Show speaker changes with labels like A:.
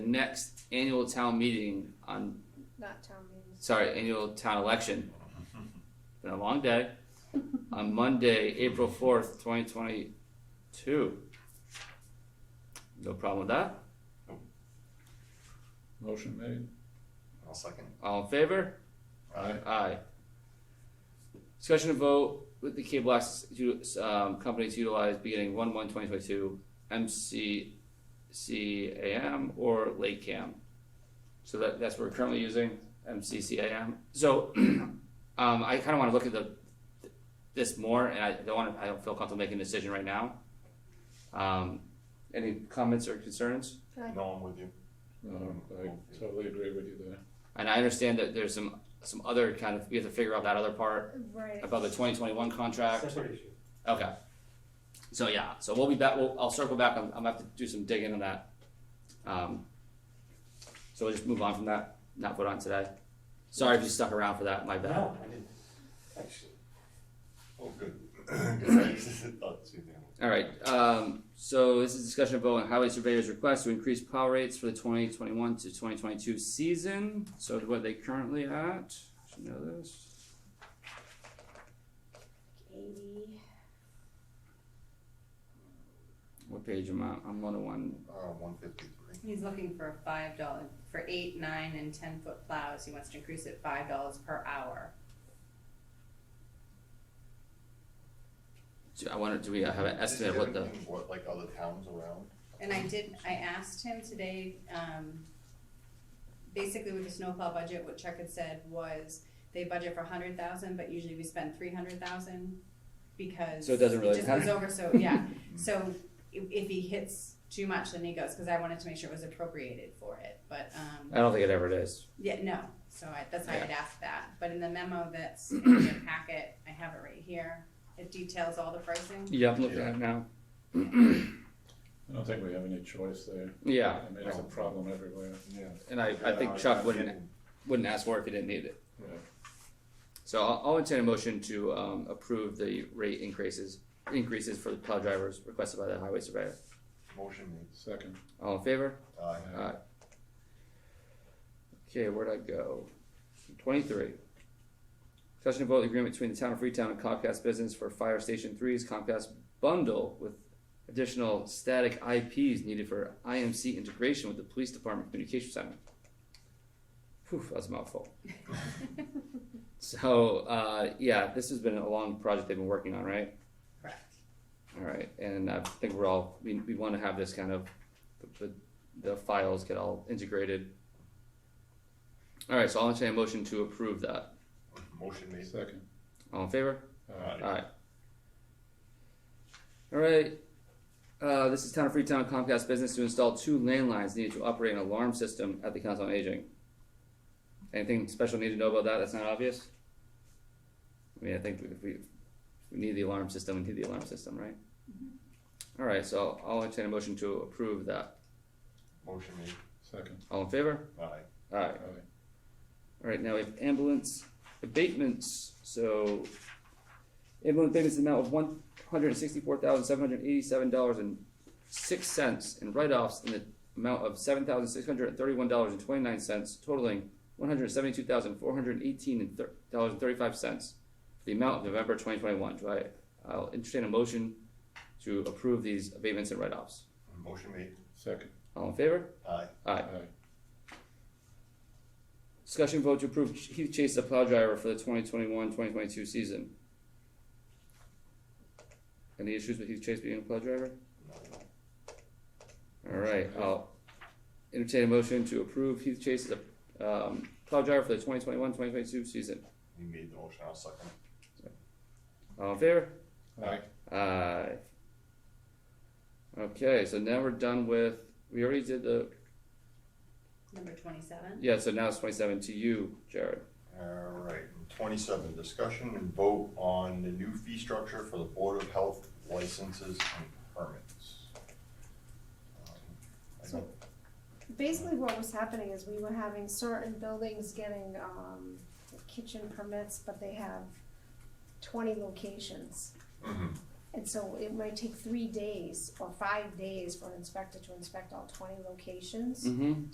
A: the next annual town meeting on,
B: Not town meetings.
A: sorry, annual town election. Been a long day. On Monday, April fourth, twenty twenty-two. No problem with that?
C: Motion made.
D: I'll second.
A: All in favor?
C: Aye.
A: Aye. Discussion and vote with the cable access u- um, companies utilized beginning one one twenty twenty two MCCAM or Lake Cam. So that that's what we're currently using MCCAM. So um, I kind of want to look at the this more, and I don't want to. I don't feel comfortable making a decision right now. Um, any comments or concerns?
B: Can I,
D: No, I'm with you.
C: Um, I totally agree with you there.
A: And I understand that there's some some other kind of we have to figure out that other part
B: right,
A: about the twenty twenty one contract.
E: Separate issue.
A: Okay. So yeah, so we'll be back. We'll, I'll circle back. I'm, I'm gonna have to do some digging on that. Um, so we'll just move on from that. Not vote on today. Sorry if you stuck around for that. My bad.
E: No, I didn't, actually.
D: Oh, good. oh, Thought the same thing.
A: All right. Um, so this is discussion of vote on highway surveyor's request to increase plow rates for the twenty twenty one to twenty twenty two season. So what are they currently at? Should know this.
B: eighty,
A: What page am I? I'm on the one.
D: Uh, one fifty-three.
F: He's looking for five dollar, for eight, nine, and ten foot plows, he wants to increase it five dollars per hour.
A: Do- I wonder. Do we have an estimate of what the?
D: What, like other towns around?
F: And I did, I asked him today, um, basically with the snowplow budget, what Chuck had said was, they budget for a hundred thousand, but usually we spend three hundred thousand, because.
A: So it doesn't really
F: just
A: matter.
F: goes over, so, yeah, so if, if he hits too much, then he goes, cause I wanted to make sure it was appropriated for it, but, um.
A: I don't think it ever is.
F: Yeah, no, so I, that's why I'd asked that, but in the memo that's in your packet, I have it right here, it details all the pricing.
A: Yeah, I'm looking at it now.
C: I don't think we have any choice there.
A: Yeah.
C: I mean, it's a problem everywhere.
D: Yeah.
A: And I, I
D: Uh,
A: think Chuck wouldn't, wouldn't ask for it if he didn't need it. So I'll, I'll entertain a motion to, um, approve the rate increases, increases for the plow drivers requested by the highway surveyor.
D: Motion made. Uh,
C: Second.
A: All in favor?
D: Aye.
A: Aye. Okay, where'd I go? Twenty-three. Discussion and vote the agreement between the town of Freetown and Comcast Business for Fire Station Three's Comcast bundle with additional static IPs needed for IMC integration with the Police Department Communication Center. Phew, that was a mouthful. So, uh, yeah, this has been a long project they've been working on, right?
F: Correct.
A: All right, and I think we're all, we, we wanna have this kind of, the, the files get all integrated. All right, so I'll entertain a motion to approve that.
D: Motion made. Uh,
C: Second.
A: All in favor?
C: Aye.
A: Alright. Alright, uh, this is Town of Freetown Comcast Business to install two landlines needed to operate an alarm system at the Council on Aging. Anything special need to know about that, that's not obvious? I mean, I think if we, if we need the alarm system, we need the alarm system, right? Alright, so I'll entertain a motion to approve that,
D: Motion made.
C: Second.
A: all in favor?
D: Aye.
A: Alright,
C: Aye.
A: alright, now we have ambulance abatements, so Ambulance payments in the amount of one hundred and sixty-four thousand, seven hundred and eighty-seven dollars and six cents, and write-offs in the amount of seven thousand, six hundred and thirty-one dollars and twenty-nine cents, totaling one hundred and seventy-two thousand, four hundred and eighteen dollars and thirty-five cents. The amount of November twenty twenty-one, do I, I'll entertain a motion to approve these abatements and write-offs.
D: Motion made.
C: Second.
A: All in favor?
D: Aye.
A: Aye. Discussion vote to approve Heath Chase the plow driver for the 2021-2022 season. Any issues with Heath Chase being a plow driver?
D: No, no.
A: All right, I'll entertain a motion to approve Heath Chase as a um, plow driver for the 2021-2022 season.
D: You made the motion, I'll second.
A: All in favor?
C: Aye.
A: Aye. Okay, so now we're done with. We already did the
F: Number twenty-seven,
A: yeah. So now it's 27 to you, Jared.
D: Alright, twenty-seven, discussion and vote on the new fee structure for the Board of Health licenses and permits. Um, I
B: So-
D: don't-
B: basically what was happening is we were having certain buildings getting, um, kitchen permits, but they have twenty locations.
D: Mhm.
B: And so it might take three days or five days for an inspector to inspect all twenty locations.
A: Mm-hmm.